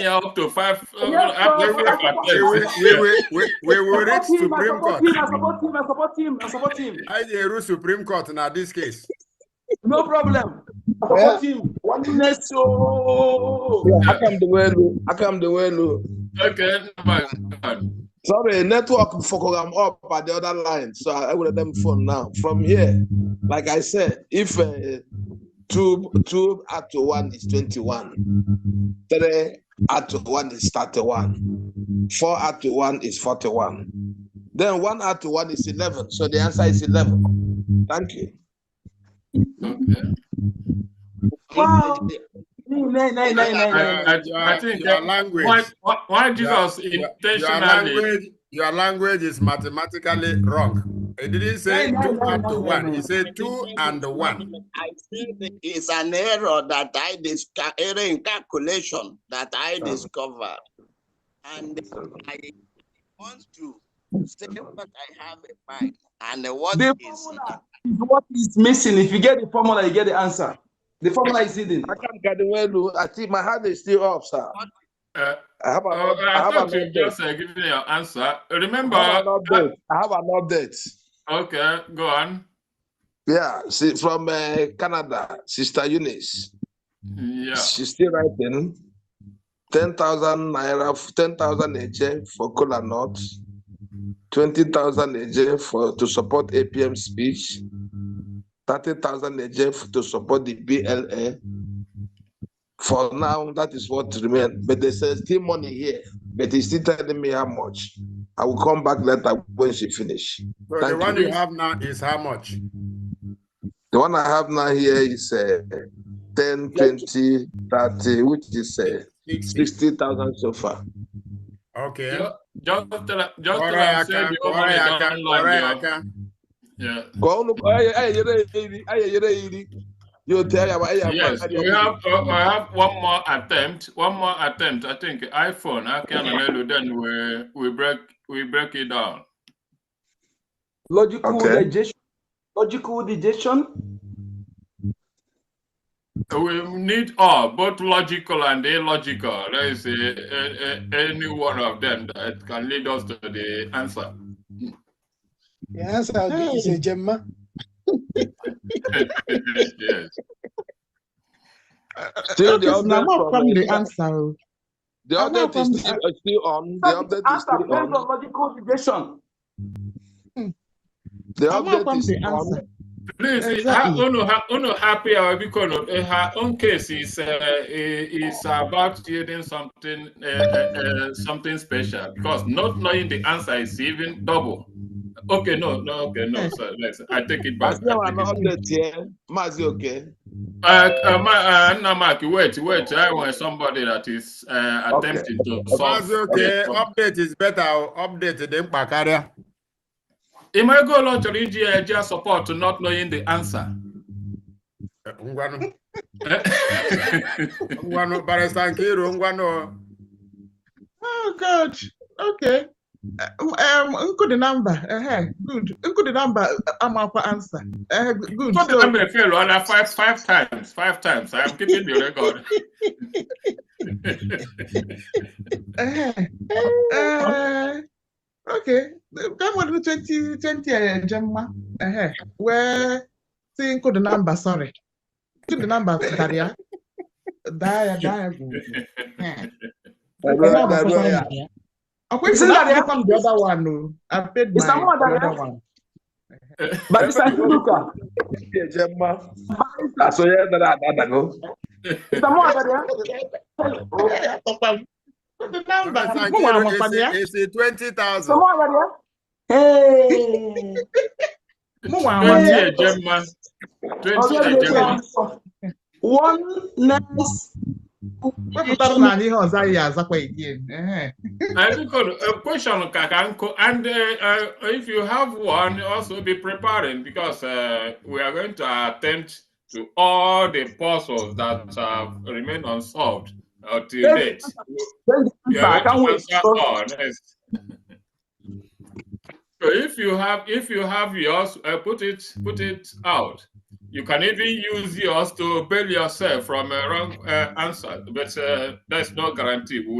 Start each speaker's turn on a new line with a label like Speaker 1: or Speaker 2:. Speaker 1: y'all up to five. Uh,
Speaker 2: Yes,
Speaker 1: I- I-
Speaker 2: sir.
Speaker 1: I- I-
Speaker 2: Yes,
Speaker 3: We were, we were, we, we were at
Speaker 2: Support him, I
Speaker 3: Supreme
Speaker 2: support
Speaker 3: Court.
Speaker 2: him, I support him, I support him, I support him.
Speaker 3: I dey rule Supreme Court now this case.
Speaker 2: No problem. I support him. One next show.
Speaker 4: Yeah, I come the way low. I come the way low.
Speaker 1: Okay, never mind.
Speaker 4: Sorry, network for I'm up at the other line, so I will let them phone now. From here, like I said, if uh, two two at one is twenty one, three at one is thirty one, four at one is forty one, then one at one is eleven. So the answer is eleven. Thank you.
Speaker 1: Okay.
Speaker 2: Wow. Nay, nay, nay, nay, nay.
Speaker 1: I- I think
Speaker 3: your
Speaker 1: that-
Speaker 3: language,
Speaker 1: Why, why, why Jesus
Speaker 3: your, your
Speaker 1: intentionally?
Speaker 3: language, your language is mathematically wrong. He didn't say
Speaker 2: No, no,
Speaker 3: two
Speaker 2: no,
Speaker 3: and
Speaker 2: no, no,
Speaker 3: one. He
Speaker 2: no.
Speaker 3: said two and one.
Speaker 5: I think it's an error that I discover, error in calculation that I discovered. And I want to say what I have in mind and what
Speaker 2: The
Speaker 5: is.
Speaker 2: formula is what is missing. If you get the formula, you get the answer. The formula is hidden.
Speaker 4: I can't get the way low. I think my hand is still up, sir.
Speaker 1: Uh,
Speaker 4: I have a,
Speaker 1: uh, I
Speaker 4: I have an
Speaker 1: thought you
Speaker 4: update.
Speaker 1: just uh, giving your answer. Remember,
Speaker 4: I have an
Speaker 1: uh,
Speaker 4: update. I have an update.
Speaker 1: okay, go on.
Speaker 4: Yeah, see, from uh, Canada, Sister Eunice.
Speaker 1: Yeah,
Speaker 4: She's still writing. 10,000 naira, 10,000 AJ for Kola North, 20,000 AJ for, to support APM speech, 30,000 AJ f- to support the BLA. For now, that is what remains. But there's uh, still money here, but he's still telling me how much. I will come back later when she finish.
Speaker 3: So the
Speaker 4: Thank
Speaker 3: one
Speaker 4: you.
Speaker 3: you have now is how much?
Speaker 4: The one I have now here is uh, 10, 20, 30, which is uh,
Speaker 3: Sixty.
Speaker 4: 60,000 so far.
Speaker 3: Okay.
Speaker 1: Ju- just tell her- just tell her say
Speaker 3: Oriaka,
Speaker 1: the whole money
Speaker 3: Oriaka,
Speaker 1: don't like you.
Speaker 3: Oriaka.
Speaker 1: Yeah,
Speaker 4: Go on, look, aye, aye, yere iri, aye, yere iri. You tell ya, aye, aye,
Speaker 1: yes.
Speaker 4: aye,
Speaker 1: We
Speaker 4: aye.
Speaker 1: have uh, I have one more attempt. One more attempt. I think iPhone. I can then we we break we break it down.
Speaker 2: Logical
Speaker 4: Okay.
Speaker 2: digestion. Logical digestion.
Speaker 1: We need all, both logical and illogical. There is a, a, a, any one of them that can lead us to the answer.
Speaker 6: The answer is a Gemma.
Speaker 1: yes.
Speaker 4: Still, the
Speaker 7: Notice now,
Speaker 4: update
Speaker 7: more from the
Speaker 4: from,
Speaker 7: answer. oh.
Speaker 4: the
Speaker 7: I'm not
Speaker 4: update is
Speaker 7: from
Speaker 4: still, uh, still on, the
Speaker 2: That is
Speaker 4: update is
Speaker 2: answer
Speaker 4: still
Speaker 2: based on
Speaker 4: on,
Speaker 2: logical digestion.
Speaker 4: the
Speaker 7: I'm
Speaker 4: update
Speaker 7: not from
Speaker 4: is
Speaker 7: the
Speaker 4: on.
Speaker 7: answer.
Speaker 1: Please,
Speaker 7: Exactly.
Speaker 1: her, own, her own happy hour because of, uh, her own case is uh, i- is about creating something uh, uh, uh, something special because not knowing the answer is even double. Okay, no, no, okay, no. Sorry, let's, I take it
Speaker 4: I
Speaker 1: back.
Speaker 4: still
Speaker 1: I
Speaker 4: have
Speaker 1: take
Speaker 4: an
Speaker 1: it back.
Speaker 4: update here, Mazi, okay?
Speaker 1: Uh, uh, ma, uh, no, Mark, wait, wait. I want somebody that is uh,
Speaker 4: Okay.
Speaker 1: attempting to solve.
Speaker 3: Mazi, okay.
Speaker 1: the problem.
Speaker 3: Update is better. Update the mkpa karịa.
Speaker 1: It might go along to the EGIG support to not knowing the answer.
Speaker 3: Ngwanụ, ngwanụ, barịsta nke iro ngwanụ.
Speaker 7: Oh, God. Okay. Uh, Um, include the number. Uh-huh. Good. Include the number. I'm up for answer. Uh, good.
Speaker 1: Not
Speaker 7: So,
Speaker 1: that I'm a failure, I'll have five, five times, five times. I'm keeping the record.
Speaker 7: uh-huh. Uh, okay. Come on, 20, 20, uh, Gemma. Uh-huh. Where, see, include the number. Sorry. Include the number, Daria. Daria, Daria. Uh-huh.
Speaker 4: Hello,
Speaker 7: Come on,
Speaker 4: hello, yeah.
Speaker 7: Daria. À, Of course,
Speaker 2: Isn't that
Speaker 7: that
Speaker 2: the-
Speaker 7: become the other one. No, I paid
Speaker 2: Is
Speaker 7: my
Speaker 2: that more than
Speaker 7: the
Speaker 2: that?
Speaker 7: other one.
Speaker 2: Barrister Iluka.
Speaker 4: Yeah, Gemma. Ah, so yeah, that- that- that- that go.
Speaker 2: Is that more than that?
Speaker 7: The number.
Speaker 3: Barịsta
Speaker 7: Who
Speaker 3: nke
Speaker 7: am
Speaker 3: iro
Speaker 7: I from
Speaker 3: esi-
Speaker 7: here?
Speaker 3: esi 20,000.
Speaker 2: Some more than that? Hey.
Speaker 7: Mụ nwa
Speaker 1: Twenty
Speaker 7: nwanne.
Speaker 1: a Gemma. Twenty
Speaker 2: Okay,
Speaker 1: a
Speaker 2: the
Speaker 1: Gemma.
Speaker 2: answer. One next.
Speaker 7: Wepụtara na anyị ihe ọzọ anyị azakwa again. Ehe.
Speaker 1: I think on a question, Kakanko, and uh, uh, if you have one, also be preparing because uh, we are going to attempt to all the puzzles that have remained unsolved uh, till date.
Speaker 2: Then the
Speaker 1: We
Speaker 2: answer. I
Speaker 1: are
Speaker 2: can't
Speaker 1: going
Speaker 2: wait.
Speaker 1: to answer all. yes. So if you have, if you have yours, uh, put it, put it out. You can even use yours to bail yourself from a wrong uh, answer, but uh, there's no guarantee. We